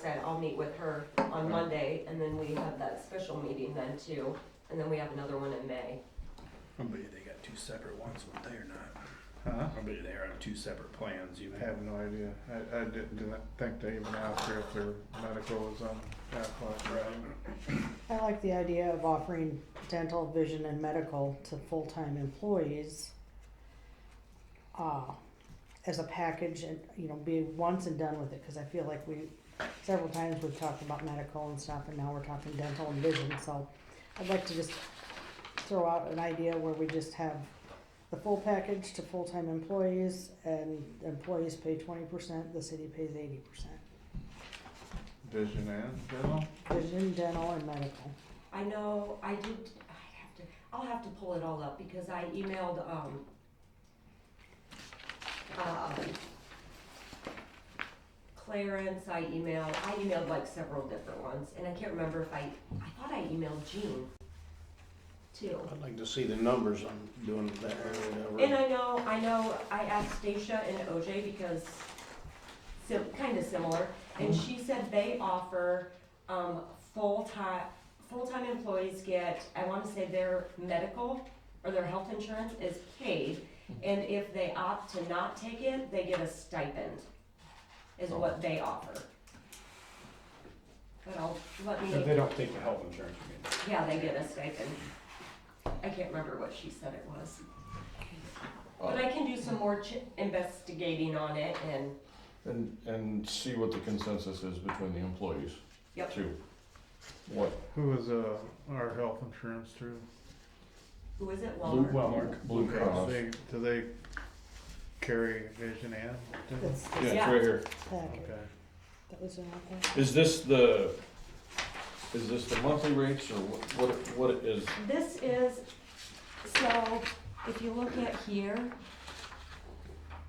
said, I'll meet with her on Monday, and then we have that special meeting then too, and then we have another one in May. I bet you they got two separate ones, won't they, or not? Huh? I bet you they're on two separate plans, you I have no idea. I, I didn't, didn't think they even asked her if their medical was on that clock. Right. I like the idea of offering dental, vision, and medical to full-time employees uh, as a package and, you know, be once and done with it, because I feel like we, several times we've talked about medical and stuff, and now we're talking dental and vision, so I'd like to just throw out an idea where we just have the full package to full-time employees, and employees pay twenty percent, the city pays eighty percent. Vision and dental? Vision, dental, and medical. I know, I did, I have to, I'll have to pull it all up, because I emailed, um, uh, Clarence, I emailed, I emailed like several different ones, and I can't remember if I, I thought I emailed Jean too. I'd like to see the numbers on doing that or And whatever. I know, I know, I asked Stacia and OJ because, sim, kinda similar, and Mm-hmm. she said they offer, um, full-time, full-time employees get, I wanna say their medical or their health insurance is paid, Mm-hmm. and if they opt to not take it, they get a stipend, is Oh. what they offer. But I'll, let me. But they don't take the health insurance, you mean? Yeah, they get a stipend. I can't remember what she said it was. But I can do some more ch- investigating on it and, And, and see what the consensus is between the employees. Yep. Too. What, Who was, uh, our health insurance through? who is it, Walmart? Well, Blue Cross? They, do they carry vision and dental? That's the Yeah, it's right here. package. Okay. That was in there. Is this the, is this the monthly rates or what, what, what is, This is, so if you look at here,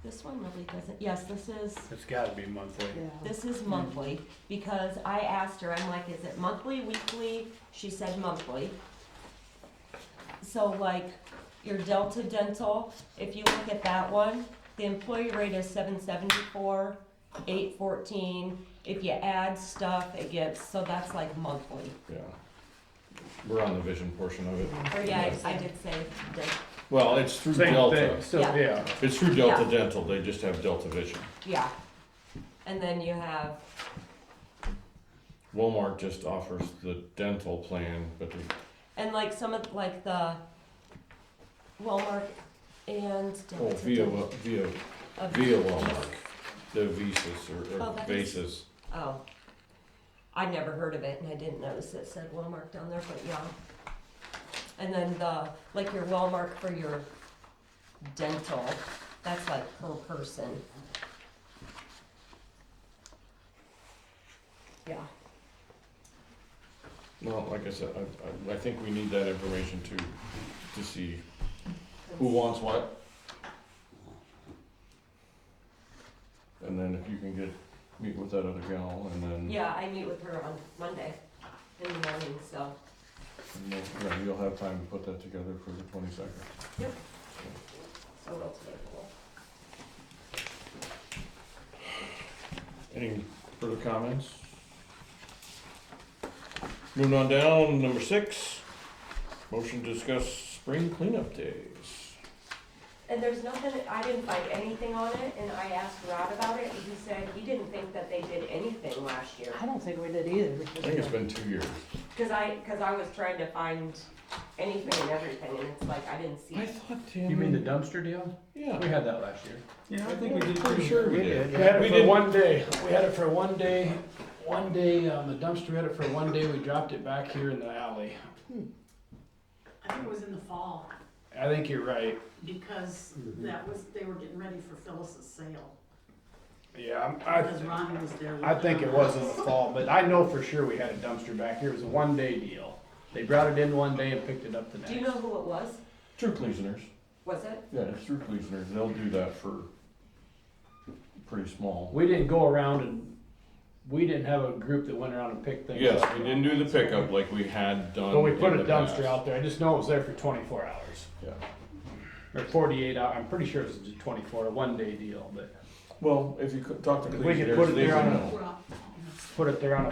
this one really doesn't, yes, this is, It's gotta be monthly. Yeah. this is monthly. Because I asked her, I'm like, is it monthly, weekly? She said monthly. So like, your Delta Dental, if you look at that one, the employee rate is seven seventy-four, eight fourteen. If you add stuff, it gets, so that's like monthly. yeah. We're on the vision portion of it. Or yeah, I I did say Delta, Well, it's through Same Delta. thing, so, Yeah. yeah. It's through Delta Yeah. Dental, they just have Delta Vision. yeah. And then you have, Walmart just offers the dental plan, but the and like some of, like the Walmart and Oh, Delta via, Dental. via, of- via Walmart, the Visas or, Oh, or that is- Basis. Oh. I'd never heard of it and I didn't notice it said Walmart down there, but yeah. And then the, like your Walmart for your dental, that's like per person. Yeah, Well, like I said, I, I, I think we need that information to, to see who wants what. And then if you can get, meet with that other gal and then. yeah, I meet with her on Monday in the morning, so. and then, yeah, You'll have time to put that together for the twenty-second. So we'll table. Any further comments? Moving on down, number six, motion to discuss spring cleanup days. And there's nothing, I didn't find anything on it and I asked Rod about it and he said he didn't think that they did anything last year. I don't think we did either. I because think it's been two years. Cause I, cause I was trying to find anything and everything, and it's like, I didn't see. I it. thought You mean the Tim, dumpster deal? We yeah, had that last year. Yeah, I think we did pretty sure we did. We had We it for did- one day, we had it for one day, one day, um, the dumpster, we had it for one day, we dropped it back here in the alley. I think it was in the fall, I think you're right, because Mm-hmm. that was, they were getting ready for Phyllis's sale, yeah, I'm- because I, Ronnie was there. I think it was in the fall, but I know for sure we had a dumpster back here, it was a one day deal. They brought it in one day and picked it up the Do you next. know who it was? true Cleasoners, Was it? yeah, it's true Cleasoners, they'll do that for pretty small. We didn't go around and, we didn't have a group that went around and picked things Yes, up. we didn't do the pickup like we had done. But we put in a the dumpster past. out there, I just know it was there for twenty-four hours. Yeah. Or forty-eight hour, I'm pretty sure it was a twenty-four, a one-day deal, but Well, if you could talk to We could Cleasoners, put it they there would on a- know. Well, put it there on a